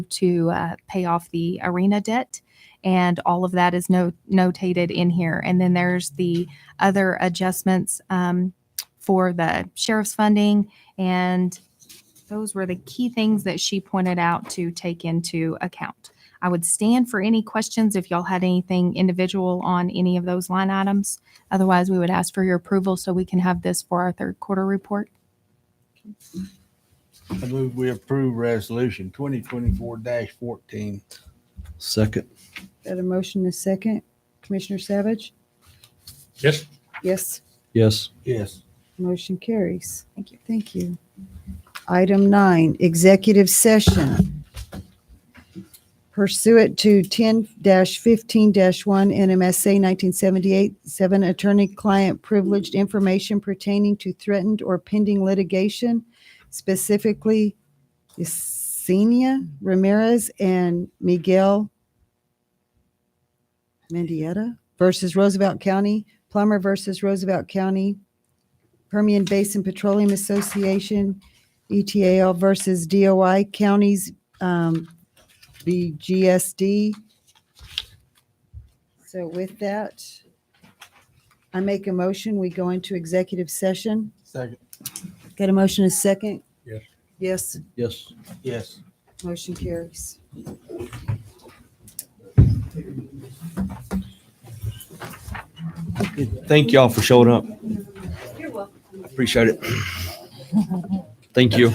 to uh, pay off the arena debt. And all of that is no, notated in here. And then there's the other adjustments um, for the sheriff's funding. And those were the key things that she pointed out to take into account. I would stand for any questions if y'all had anything individual on any of those line items. Otherwise, we would ask for your approval so we can have this for our third quarter report. I move we approve resolution twenty twenty-four fourteen. Second. Got a motion and a second. Commissioner Savage? Yes. Yes. Yes. Yes. Motion carries. Thank you. Thank you. Item nine, executive session. Pursuant to ten fifteen one NMSA nineteen seventy-eight, seven attorney-client privileged information pertaining to threatened or pending litigation, specifically Yesenia Ramirez and Miguel Mendieta versus Roosevelt County, Plummer versus Roosevelt County, Permian Basin Petroleum Association, E ETAL versus DOI counties, um, BGSD. So with that, I make a motion, we go into executive session. Second. Got a motion, a second? Yes. Yes, Yes. Yes. motion carries. Thank y'all for showing up. You're welcome. Appreciate it. Thank you.